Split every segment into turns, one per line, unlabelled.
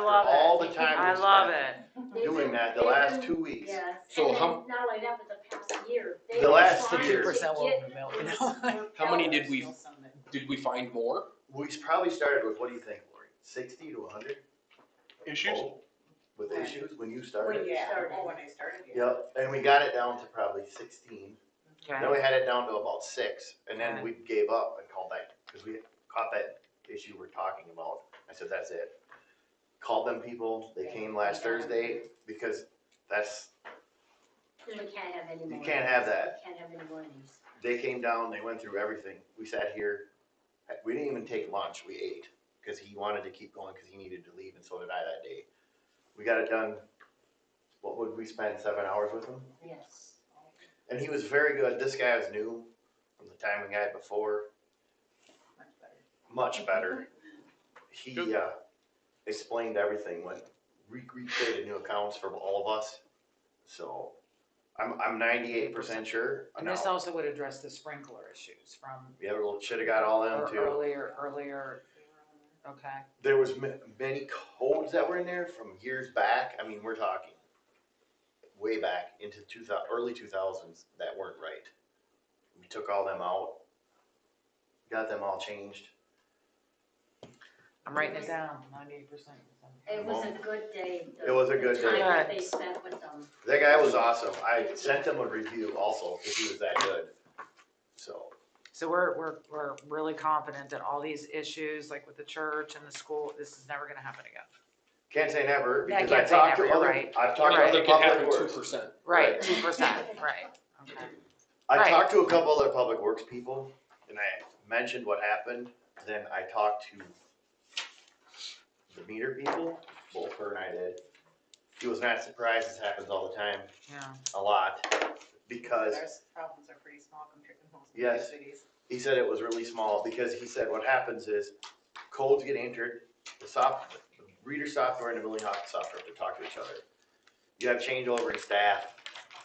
I love it.
all the time
I
we
love
spent
it.
They've
Doing
been-
that the
they've
last
been-
two weeks.
Yes,
So
and then
how-
not only that, but the past year.
The last year.
year.
2% will melt, you know?
How many did we, did we find more?
We probably started with, what do you think, Lori? Sixty to hundred? Oh,
Issues?
Oh,
With
Right.
issues when you
When
started?
you started,
started.
when I started, yeah.
Yep, and we got it down to probably sixteen.
Okay.
Then we had it down to about six, and then
Okay.
we gave up and called that, because we caught that issue we're talking about. I said, that's it. Called them people, they came last Thursday, because that's,
We can't have any more.
You can't have that.
We can't have any more of these.
they came down, they went through everything. We sat here, we didn't even take lunch, we ate, because he wanted to keep going, because he needed to leave, and so did I that day. We got it done, what would we spend, seven hours with him?
Yes.
And he was very good. This guy was new from the timing guy before,
Much better.
much better. He
Good.
uh, explained everything, went re- recreated new accounts for all of us. So I'm, I'm ninety-eight percent sure.
And
now.
this also would address the sprinkler issues from
Yeah, we should have got all them
ear-
too.
earlier, earlier, okay.
There was ma- many codes that were in there from years back. I mean, we're talking way back into two thousand, early two thousands that weren't right. We took all them out, got them all changed.
I'm writing it down, ninety-eight percent.
It was a good day. the-
It was a good
The time
day.
that they spent with them.
That guy was awesome. I sent him a review also because he was that good. So
So we're, we're, we're really confident that all these issues, like with the church and the school, this is never gonna happen again.
can't say never
Yeah, I
because I
can't say
talked
never,
to
you're
other,
right.
I've talked to
You're
other
right.
public
Two
works.
percent.
Right,
Right.
two percent, right, okay.
I
Right.
talked to a couple other public works people and I mentioned what happened. Then I talked to the meter people, both her and I did. He was not surprised. This happens all the time,
Yeah,
a lot, because
Our problems are pretty small compared to most bigger
Yes.
cities.
He said it was really small because he said what happens is codes get entered, the soft, the reader software and the building hockey software have to talk to each other. You have changeover in staff.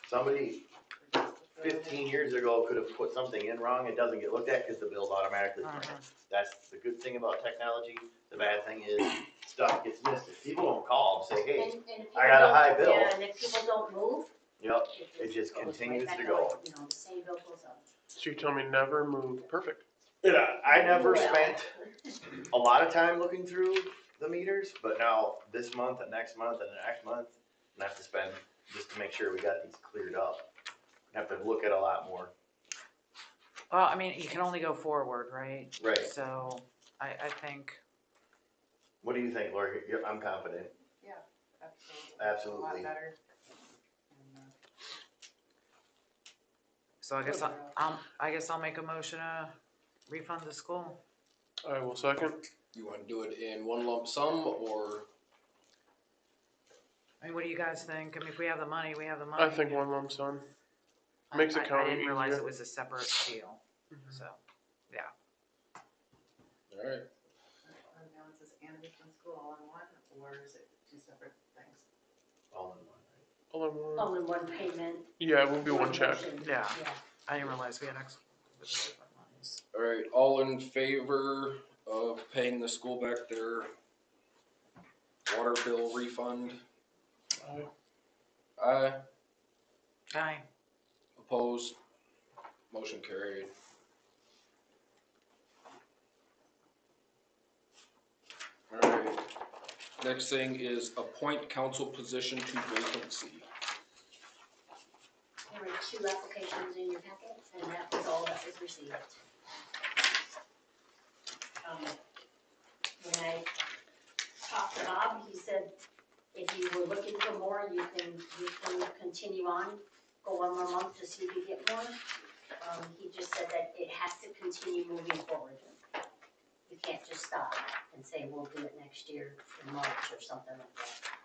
Somebody fifteen years ago could have put something in wrong. It doesn't get looked at because the bill's automatically printed. That's the good thing about technology. The bad thing is stuff gets missed. If people don't call and say,
And-
hey,
and if
I got a
people
high
don't-
bill.
Yeah, and if people don't move.
yep,
just
It just
goes right
continues
back
to
up,
go.
You know, the same bill goes up.
So you tell me never move, perfect.
And I- I never
Well.
spent a lot of time looking through the meters, but now this month and next month and the next month, I have to spend just to make sure we got these cleared up. I have to look at a lot more.
well, I mean, you can only go forward, right?
Right.
So, I, I think,
What do you think, Lori? You're- I'm confident.
Absolutely. A
Absolutely.
lot better. And, uh,
so I guess, I- I'll, I guess I'll make a motion to refund the school.
I will second.
You wanna do it in one lump sum or?
I mean, what do you guys think? I mean, if we have the money, we have the money.
I think one lump sum.
I-
makes it
I-
count
I didn't realize
easier.
it was a separate deal, so.
Alright.
fund balances and refund school all in one, or is it two separate things?
All in one.
All in one.
All in one payment.
Yeah, it will be one check.
motion.
Yeah.
Yeah.
I didn't realize we had ex. different lines.
Alright, all in favor of paying the school back their water bill refund?
Aye.
Aye,
Aye.
opposed, motion carried. Alright, next thing is appoint council position to vacancy.
There were two applications in your packet, and that was all that was received. Um, When I talked to Bob, he said, if you were looking for more, you can, you can continue on, go one more month to see if you get more. Um, he just said that it has to continue moving forward. You can't just stop and say, we'll do it next year in March or something like that.
Oh.